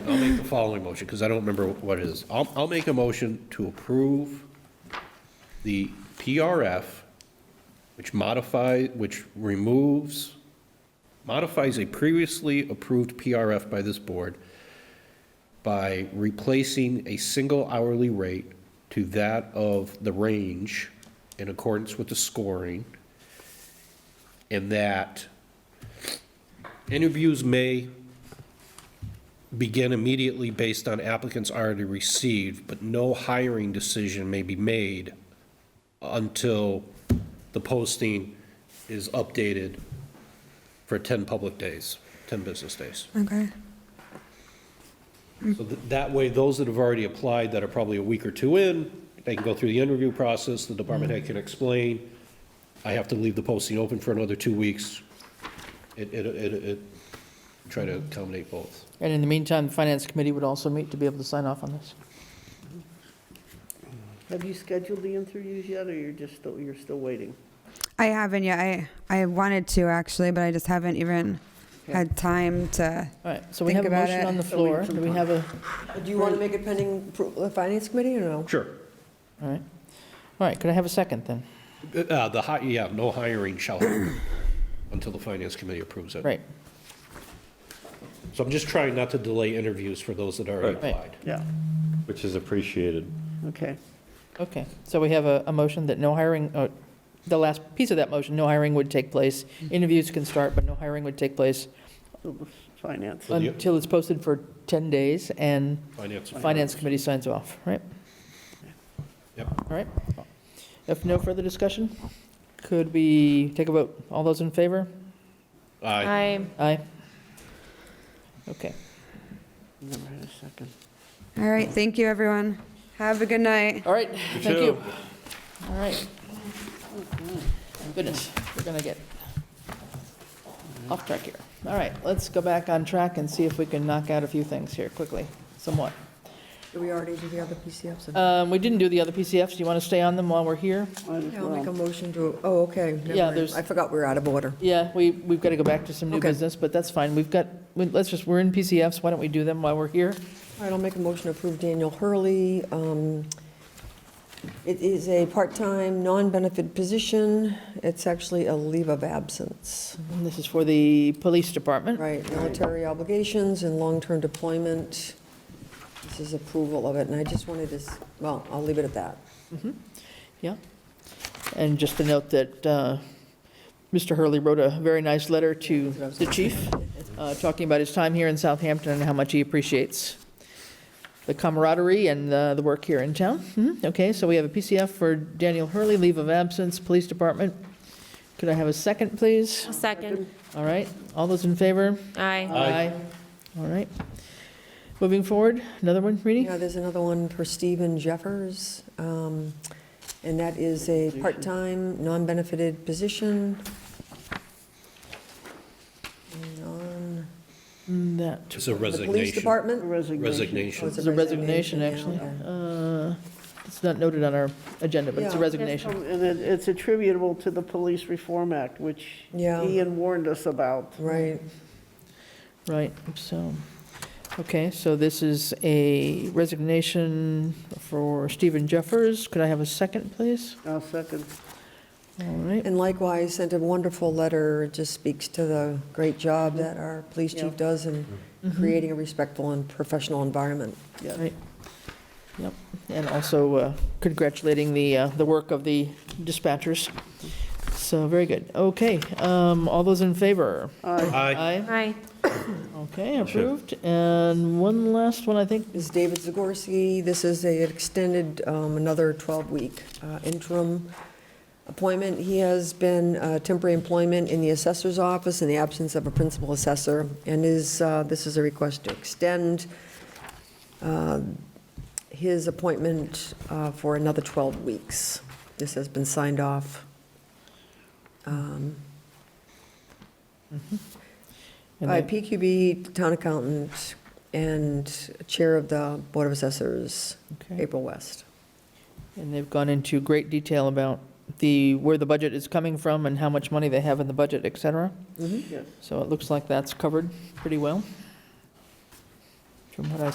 I'll make the following motion, because I don't remember what it is. I'll, I'll make a motion to approve the PRF, which modify, which removes, modifies a previously approved PRF by this board by replacing a single hourly rate to that of the range in accordance with the scoring, and that interviews may begin immediately based on applicants already received, but no hiring decision may be made until the posting is updated for 10 public days, 10 business days. Okay. So th- that way, those that have already applied that are probably a week or two in, they can go through the interview process, the department head can explain, I have to leave the posting open for another two weeks. It, it, it, it, try to accommodate both. And in the meantime, the Finance Committee would also meet to be able to sign off on this. Have you scheduled the interviews yet, or you're just, still you're still waiting? I haven't yet. I, I wanted to actually, but I just haven't even had time to. All right, so we Think have a about motion it. on the A week floor. from Do we now. have a, Uh, Do you want to make it pending approval of the Finance Committee or no? Sure. all right. All right, could I have a second then? Uh, the hi, yeah, no hiring shall happen until the finance committee approves it. Right, So I'm just trying not to delay interviews for those that already Right. applied. Yeah. Which is appreciated. Okay. okay. So we have a, a motion that no hiring, uh, the last piece of that motion, no hiring would take place. Interviews can start, but no hiring would take place So the Finance. the- until it's posted for 10 days and Finance. Finance Committee signs off, right? Yep. All right. If no further discussion, could we take a vote? All those in favor? Aye. I Aye. Okay. Never had a second. All right. Thank you, everyone. Have a good night. All right, thank too. you. All right. Goodness, we're gonna get off track here. All right, let's go back on track and see if we can knock out a few things here quickly, somewhat. Do we already do the other PCFs? Um, We didn't do the other PCFs. Do you want to stay on them while we're here? Might as Yeah, I'll make a well. motion to, oh, okay. never Yeah, mind. there's- I forgot we were out of order. Yeah, we, we've got to go back to some new Okay. business, but that's fine. We've got, we- let's just, we're in PCFs. Why don't we do them while we're here? All right, I'll make a motion to approve Daniel Hurley. Um, It is a part-time, non-benefit position. It's actually a leave of absence, And This is for the police department. right? Military obligations and long-term deployment. This is approval of it, and I just wanted to, s- well, I'll leave it at that. Yeah. And just to note that uh, Mr. Hurley wrote a very nice letter to the chief, uh, talking about his time here in Southampton and how much he appreciates the camaraderie and uh, the work here in town. Mhm. Okay, so we have a PCF for Daniel Hurley, leave of absence, police department. Could I have a second, please? Second. All right, all those in favor? Aye. Aye. All right. Moving forward, another one, Reedy? Yeah, there's another one for Stephen Jeffers, um, and that is a part-time, non-benefited position. Non- Mm, That It's a The Police resignation. Department? Resignation. Oh, Resignation. it's is a resignation, yeah, actually. okay. Uh, It's not noted on our agenda, but it's a Yeah. resignation. um, And it- it's attributable to the Police Reform Act, which Yeah. Ian warned us about. Right, Right, so, okay, so this is a resignation for Stephen Jeffers. Could I have a second, please? I'll second. All right, and likewise, sent a wonderful letter, it just speaks to the great job that our police chief does in Mm-hmm. creating a respectful and professional environment. all right. Yep, and also uh, congratulating the, uh, the work of the dispatchers. So, very good. Okay, um, all those in favor? Aye. Aye. Aye. Okay, approved. And one last one, I think. This is David Zagorski. This is a extended, um, another 12-week uh, interim appointment. He has been uh, temporary employment in the assessor's office in the absence of a principal assessor, and is, uh, this is a request to extend uh, his appointment uh, for another 12 weeks. This has been signed off. um, and By then- PQB, town accountant, and chair of the Board of Assessors, okay. April West. And they've gone into great detail about the, where the budget is coming from and how much money they have in the budget, et cetera. Yes. So it looks like that's covered pretty well. from what I